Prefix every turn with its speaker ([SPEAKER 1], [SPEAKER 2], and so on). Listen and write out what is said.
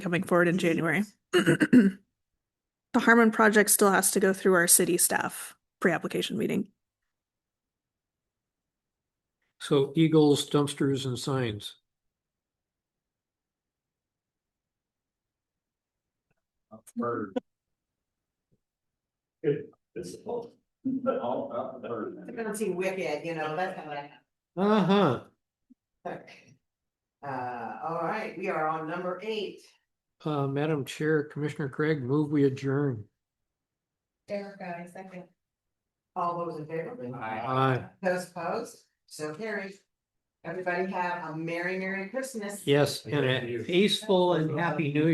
[SPEAKER 1] coming forward in January. The Harmon project still has to go through our city staff pre-application meeting.
[SPEAKER 2] So eagles, dumpsters and signs.
[SPEAKER 3] Bird. It's all, all about the
[SPEAKER 4] I'm
[SPEAKER 3] bird.
[SPEAKER 4] gonna see Wicked, you know, that's how that
[SPEAKER 2] Uh-huh.
[SPEAKER 4] happened. Uh, all right, we are on number eight.
[SPEAKER 2] Uh, Madam Chair, Commissioner Craig, move we adjourn.
[SPEAKER 4] Erica, second. All those in favor?
[SPEAKER 2] Aye.
[SPEAKER 4] Those opposed? So carried. Everybody have a merry, merry Christmas.
[SPEAKER 2] Yes, and a peaceful and happy new